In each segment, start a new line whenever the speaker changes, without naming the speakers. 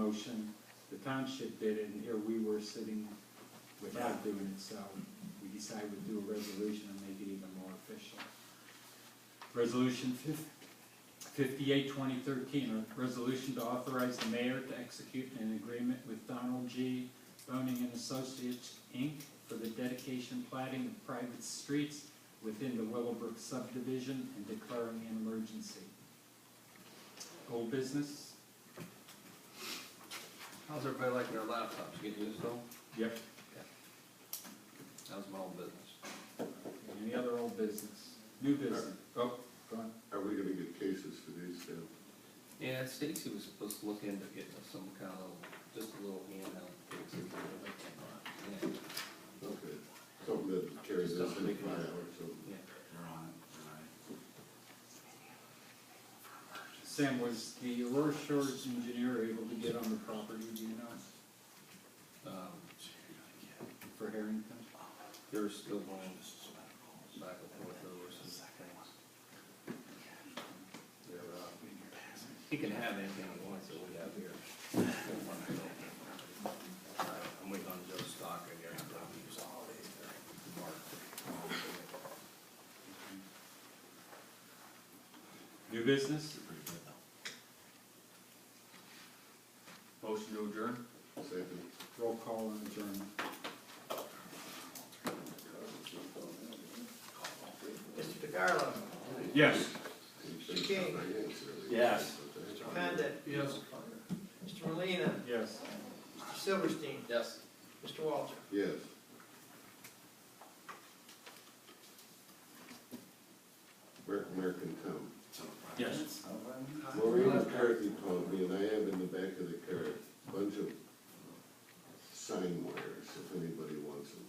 motion. The township did it, and here we were sitting without doing it, so we decided we'd do a resolution and make it even more official. Resolution fifty-eight, twenty thirteen, a resolution to authorize the mayor to execute an agreement with Donald G. Boning and Associates, Inc. for the dedication plating of private streets within the Willowbrook subdivision and declaring an emergency. Old business?
How's everybody liking their laptops? Getting used to them?
Yep.
That was my own business.
Any other old business? New business? Oh, go on.
Are we gonna get cases for these two?
Yeah, Stacy was supposed to look into getting us some kind of, just a little handheld fix. it, but, yeah,
Okay, something that carries us in five hours, so.
yeah.
You're on it, Sam, was the Aurora Shores engineer able to get on the property, do you know,
Um,
for Harrington?
They're still going back and forth over some things. They're, uh, he can have anything he wants that we have here. I'm waiting on Joe Stock again.
New business?
Motion to adjourn?
Second.
Roll call and adjournment.
Mr. DeCarlo,
Yes.
Mr. King,
Yes.
Mr. Condit. Yes. Mr. Molina,
Yes.
Mr. Silverstein,
Yes.
Mr. Walter.
Yes. Where, where can come?
Yes.
Maureen McCarthy called me, and I have in the back of the car a bunch of sign wires, if anybody wants them.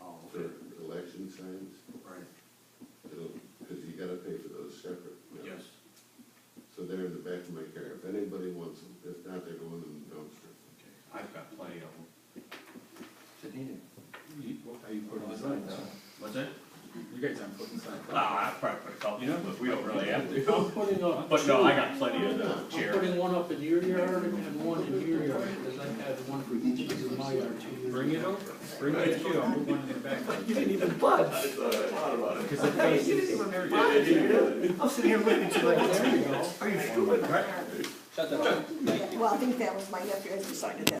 Oh, For election signs. Right. It'll, because you gotta pay for those separate. you know. So they're in the back of my car, if anybody wants them, if not, they're going in the dumpster.
I've got plenty of them. Didn't need it.
You, are you putting signs up?
What's that?
You guys aren't putting signs
Oh,
up.
I probably put a couple,
You know?
but we don't really have to.
I'm putting up
But
two.
no, I
I'm
got plenty of the chair.
putting one up in your yard and one in your yard, because I had one for each of my yard two years.
Bring it over, bring it to you, I'll put one in the back.
You didn't even budge.
Because it faces,
I'm sitting here waiting to like, there you go.
Well, I think that was my nephew, I decided that.